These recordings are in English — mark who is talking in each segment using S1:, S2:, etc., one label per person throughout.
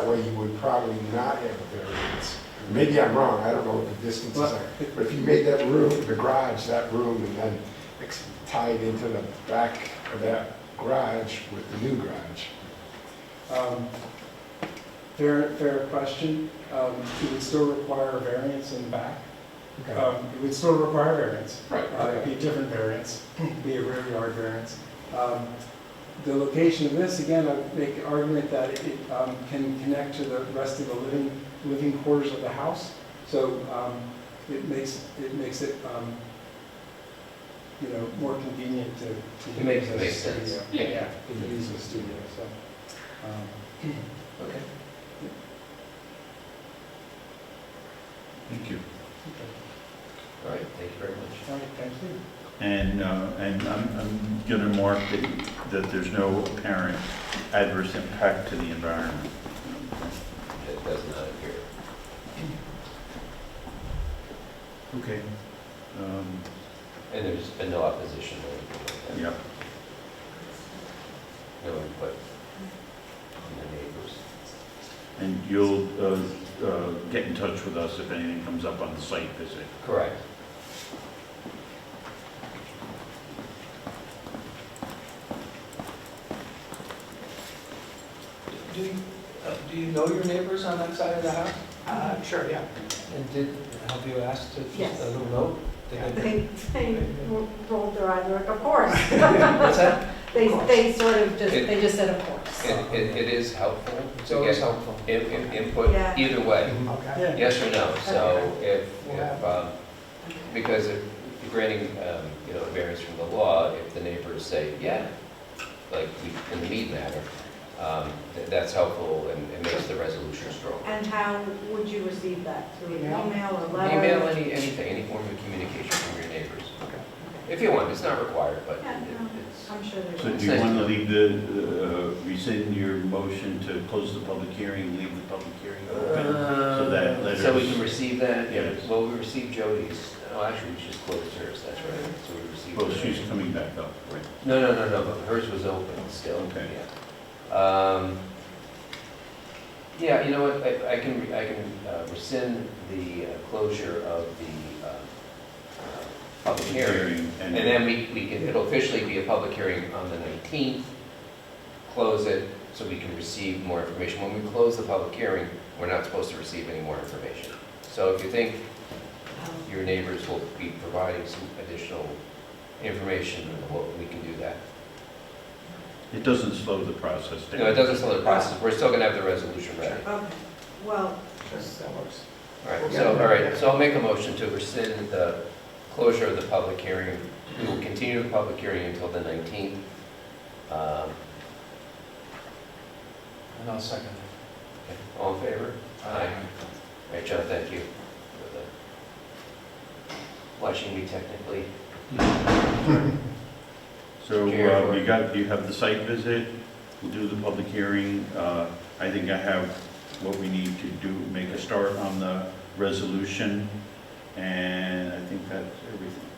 S1: way you would probably not have a variance. Maybe I'm wrong, I don't know what the distances
S2: Well,
S1: are, but if you made that room, the garage, that room, and then ex- tie it into the back of that garage with the new garage.
S2: Um, Fair, fair question. Um, It would still require a variance in the back.
S1: Okay.
S2: Um, It would still require variance.
S1: Right,
S2: Uh, It'd be a different variance, be a rear yard variance. Um, The location of this, again, I would make the argument that it um, can connect to the rest of the living, living quarters of the house. So um, it makes, it makes it, um, you know, more convenient to. to
S3: It makes-
S2: use as a
S3: makes sense.
S2: studio.
S3: Yeah.
S2: Yeah, to use as a studio, so. um,
S3: Okay.
S4: Thank you.
S2: okay.
S3: All right, thank you very much.
S2: All right, thank you.
S4: And, uh, and I'm, I'm gonna mark that, that there's no apparent adverse impact to the environment.
S3: It does not appear.
S4: Okay. Um,
S3: And there's been no opposition or anything like
S4: yeah,
S3: that? No input from the neighbors?
S4: and you'll, uh, uh, get in touch with us if anything comes up on the site visit.
S3: Correct.
S5: Do you, uh, do you know your neighbors on that side of the house?
S6: Uh, sure, yeah.
S5: And did, have you asked to
S6: Yes.
S5: just a little note? Did they-
S6: They, they rolled their eyes, like, of course.
S5: What's that?
S6: They,
S5: Of course.
S6: they sort of just,
S3: It-
S6: they just said, of course.
S3: It, it it is helpful
S5: It's
S3: to
S5: always
S3: get
S5: helpful.
S3: in- in- input
S6: Yeah.
S3: either way,
S5: Okay.
S3: yes or no. So if, if, um, because if if granting, um, you know, variance from the law, if the neighbors say, yeah, like we- in the meat matter, um, th- that's helpful and it makes the resolution stronger.
S6: And how would you receive that? Through an
S5: Email.
S6: email or letter?
S3: Email, any, anything, any form of communication from your neighbors,
S6: Okay.
S3: if you want, it's not required, but
S6: Yeah,
S3: it-
S6: no.
S3: it's.
S6: I'm sure there's.
S4: So do you wanna leave the, uh, rescind your motion to close the public hearing, leave the public hearing open? So that
S3: Uh,
S4: letters-
S3: So we can receive that,
S4: Yes.
S3: well, we received Jody's, oh, actually, we just closed hers, that's right,
S6: Mm-hmm.
S3: so we received.
S4: Well,
S3: hers.
S4: she's coming back up, right?
S3: No, no, no, no, but hers was open still,
S4: Okay.
S3: yeah. Um, Yeah, you know what, I, I can, re- I can uh, rescind the uh, closure of the, uh, uh, public hearing. And then we, we can, it'll officially be a public hearing on the 19th, close it, so we can receive more information. When we close the public hearing, we're not supposed to receive any more information. So if you think
S6: Um,
S3: your neighbors will be providing some additional information, well, we can do that.
S4: It doesn't slow the process down.
S3: No, it doesn't slow the process, we're still gonna have the resolution ready.
S6: Okay, well,
S5: Sure, that works.
S3: All right, so, all right, so I'll make a motion to rescind the closure of the public hearing. We will continue the public hearing until the 19th. Um,
S5: And I'll second it.
S3: okay, All in favor? All right, John, thank you for the- watching me technically.
S4: So uh, we got, you have the site visit, we'll do the public hearing. Uh, I think I have what we need to do, make a start on the resolution, and I think that's everything.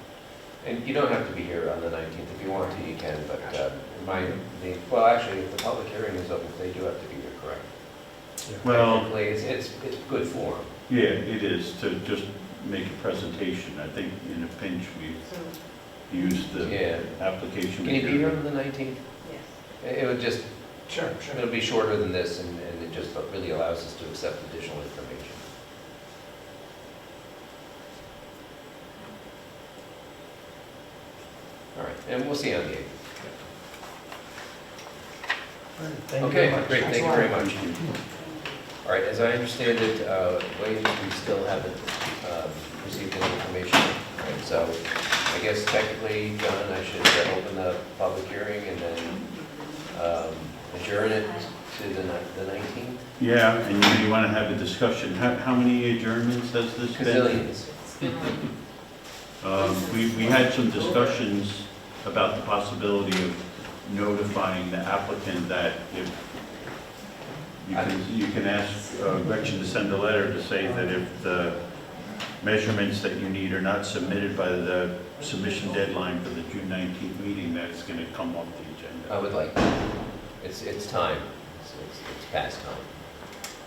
S3: And you don't have to be here on the 19th. If you want to, you can, but uh, my, the, well, actually, if the public hearing is open, they do have to be here, correct?
S4: Well,
S3: Technically, it's, it's, it's good form.
S4: yeah, it is to just make a presentation. I think in a pinch,
S6: so,
S4: we use the
S3: Yeah.
S4: application.
S3: Can you be here
S4: material.
S3: on the 19th?
S6: yes.
S3: It it would just,
S5: Sure, sure.
S3: it'll be shorter than this, and and it just really allows us to accept additional information. All right, and we'll see you on the 8th.
S5: All right, Thank you very
S3: Okay,
S5: much.
S3: great,
S5: Thanks
S3: thank
S5: a
S3: you
S5: lot.
S3: very much. All right, as I understand it, uh, wages, we still haven't um, received any information, right? So I guess technically, John, I should uh, open the public hearing and then um, adjourn it to the ni- the 19th?
S4: Yeah, and you want to have a discussion. How, how many adjournments has this been?
S3: Gazillions.
S4: Um, We, we had some discussions about the possibility of notifying the applicant that if, you can, you can ask uh, Gretchen to send a letter to say that if the measurements that you need are not submitted by the submission deadline for the June 19th meeting, that's going to come off the
S3: I
S4: agenda.
S3: would like, that. it's, it's time, It's- it's it's past time.